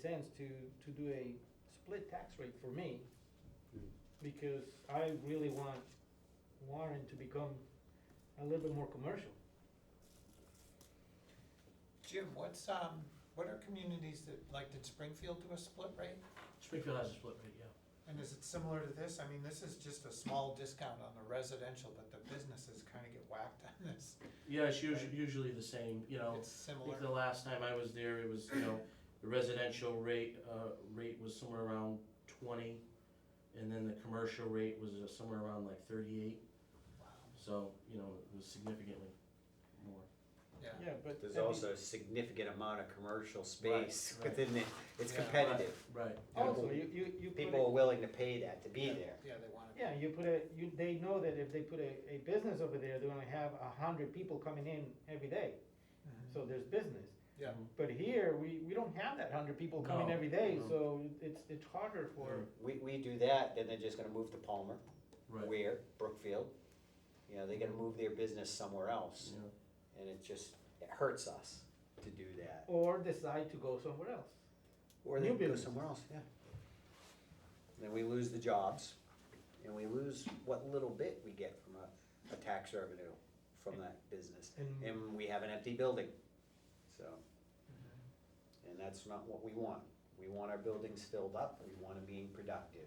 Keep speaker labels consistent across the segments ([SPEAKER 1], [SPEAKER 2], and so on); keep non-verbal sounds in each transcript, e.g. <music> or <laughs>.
[SPEAKER 1] sense to, to do a split tax rate for me,
[SPEAKER 2] Hmm.
[SPEAKER 1] because I really want Warren to become a little bit more commercial.
[SPEAKER 3] Jim, what's, um, what are communities that, like, did Springfield do a split rate?
[SPEAKER 4] Springfield has a split rate, yeah.
[SPEAKER 3] And is it similar to this? I mean, this is just a small discount on the residential, but the businesses kind of get whacked on
[SPEAKER 2] <laughs>
[SPEAKER 3] this.
[SPEAKER 4] Yeah, it's usually, usually the same, you know.
[SPEAKER 3] It's
[SPEAKER 4] I think the
[SPEAKER 3] similar.
[SPEAKER 4] last time I was there, it was, you know, the residential rate, uh, rate was somewhere around twenty, and then the commercial rate was uh, somewhere around like thirty-eight,
[SPEAKER 3] Wow.
[SPEAKER 4] so, you know, it was significantly more.
[SPEAKER 3] Yeah,
[SPEAKER 1] Yeah, but.
[SPEAKER 2] There's
[SPEAKER 1] at the-
[SPEAKER 2] also a significant amount of commercial space
[SPEAKER 4] Right, right.
[SPEAKER 2] within it. It's
[SPEAKER 3] Yeah.
[SPEAKER 2] competitive.
[SPEAKER 4] Right,
[SPEAKER 1] Also, you, you, you. put it-
[SPEAKER 2] People are willing to pay that to be there.
[SPEAKER 3] yeah, they want to.
[SPEAKER 1] Yeah, you put a, you, they know that if they put a, a business over there, they're gonna have a hundred people coming in every day, so there's business.
[SPEAKER 3] Yeah,
[SPEAKER 1] But here, we, we don't have that hundred people coming
[SPEAKER 4] No,
[SPEAKER 1] every day,
[SPEAKER 4] no.
[SPEAKER 1] so it's, it's harder for,
[SPEAKER 2] We, we do that, then they're just gonna move to Palmer,
[SPEAKER 4] right.
[SPEAKER 2] Ware, Brookfield. You know, they're gonna move their business somewhere else.
[SPEAKER 4] Yeah.
[SPEAKER 2] And it just, it hurts us to do that.
[SPEAKER 1] or decide to go somewhere else.
[SPEAKER 2] Or
[SPEAKER 1] New
[SPEAKER 2] they go
[SPEAKER 1] business.
[SPEAKER 2] somewhere else, yeah. Then we lose the jobs and we lose what little bit we get from a, a tax revenue from that business.
[SPEAKER 1] And-
[SPEAKER 2] And we have an empty building, so. And that's not what we want. We want our buildings filled up, we want to be productive.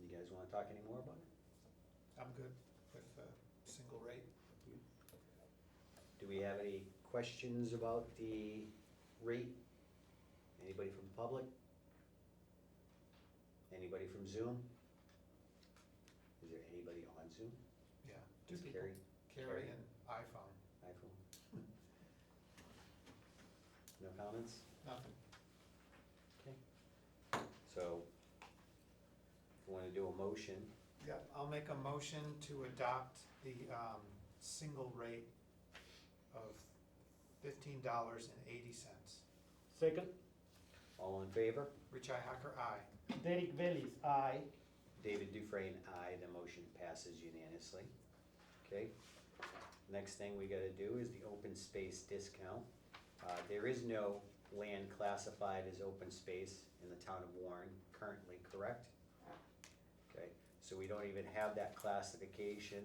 [SPEAKER 2] You guys want to talk anymore about it?
[SPEAKER 3] I'm good with a single rate.
[SPEAKER 2] Do we have any questions about the rate? Anybody from the public? Anybody from Zoom? Is there anybody on Zoom?
[SPEAKER 3] Yeah. Two
[SPEAKER 2] Just
[SPEAKER 3] people,
[SPEAKER 2] Carrie,
[SPEAKER 3] Carrie
[SPEAKER 2] Carrie.
[SPEAKER 3] and iPhone,
[SPEAKER 2] iPhone? No comments?
[SPEAKER 3] nothing.
[SPEAKER 2] Okay. So, if you want to do a motion,
[SPEAKER 3] Yeah, I'll make a motion to adopt the, um, single rate of fifteen dollars and eighty cents.
[SPEAKER 1] Second,
[SPEAKER 2] all in favor?
[SPEAKER 3] Richi Hacker, aye.
[SPEAKER 1] Derek Bellis, aye.
[SPEAKER 2] David Dufresne, aye, the motion passes unanimously. Okay? Next thing we gotta do is the open space discount. Uh, there is no land classified as open space in the town of Warren currently, correct? Okay, so we don't even have that classification.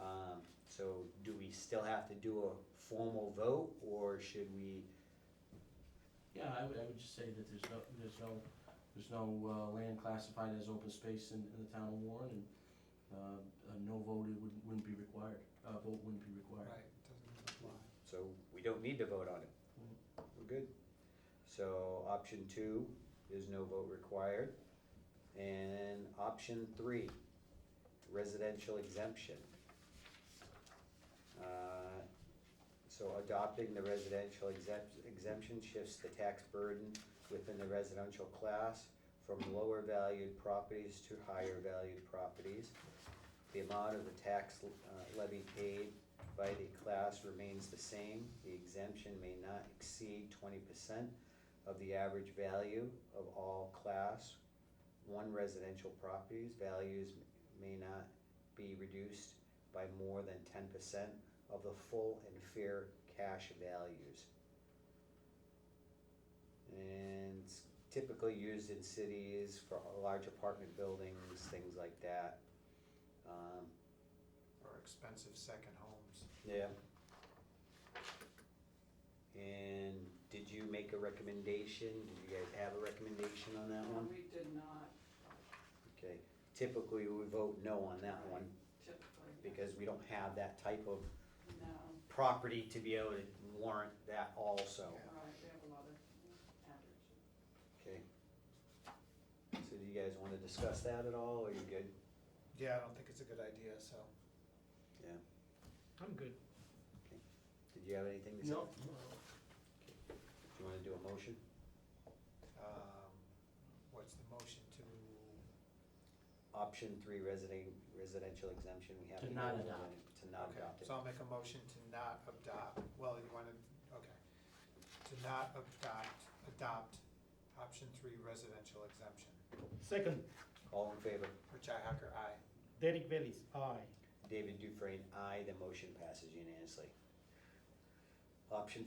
[SPEAKER 2] Um, so do we still have to do a formal vote, or should we,
[SPEAKER 4] Yeah, I would, I would just say that there's no, there's no, there's no uh, land classified as open space in, in the town of Warren, and uh, a no vote wouldn't, wouldn't be required, uh, vote wouldn't be required.
[SPEAKER 3] Right, doesn't apply.
[SPEAKER 2] so we don't need to vote on it? We're good. So option two is no vote required. And option three, residential exemption. Uh, So adopting the residential exempt- exemption shifts the tax burden within the residential class from lower valued properties to higher valued properties. The amount of the tax uh, levy paid by the class remains the same. The exemption may not exceed twenty percent of the average value of all class one residential properties. Values may not be reduced by more than ten percent of the full and fair cash values. And it's typically used in cities for large apartment buildings, things like that. Um,
[SPEAKER 3] Or expensive second homes.
[SPEAKER 2] yeah. And did you make a recommendation? Did you guys have a recommendation on that
[SPEAKER 5] No,
[SPEAKER 2] one?
[SPEAKER 5] we did not
[SPEAKER 2] Okay, typically we vote no on that one
[SPEAKER 5] typically.
[SPEAKER 2] because we don't have that type of
[SPEAKER 5] No,
[SPEAKER 2] property to be able to warrant that also.
[SPEAKER 3] Yeah.
[SPEAKER 5] right, we have a lot of average.
[SPEAKER 2] Okay. So do you guys wanna discuss that at all? Are you good?
[SPEAKER 3] Yeah, I don't think it's a good idea, so.
[SPEAKER 2] Yeah.
[SPEAKER 1] I'm good.
[SPEAKER 2] Did you have anything to say?
[SPEAKER 4] No,
[SPEAKER 2] Do you wanna do a motion?
[SPEAKER 3] Um, What's the motion to,
[SPEAKER 2] Option three, resident, residential exemption, we have.
[SPEAKER 4] To not
[SPEAKER 2] vote on
[SPEAKER 4] adopt.
[SPEAKER 2] it, To not
[SPEAKER 3] okay,
[SPEAKER 2] adopt it.
[SPEAKER 3] so I'll make a motion to not adopt, well, you wanna, okay. To not adopt, adopt option three residential exemption.
[SPEAKER 1] Second,
[SPEAKER 2] All in favor?
[SPEAKER 3] Richi Hacker, aye.
[SPEAKER 1] Derek Bellis, aye.
[SPEAKER 2] David Dufresne, aye. The motion passes unanimously. Option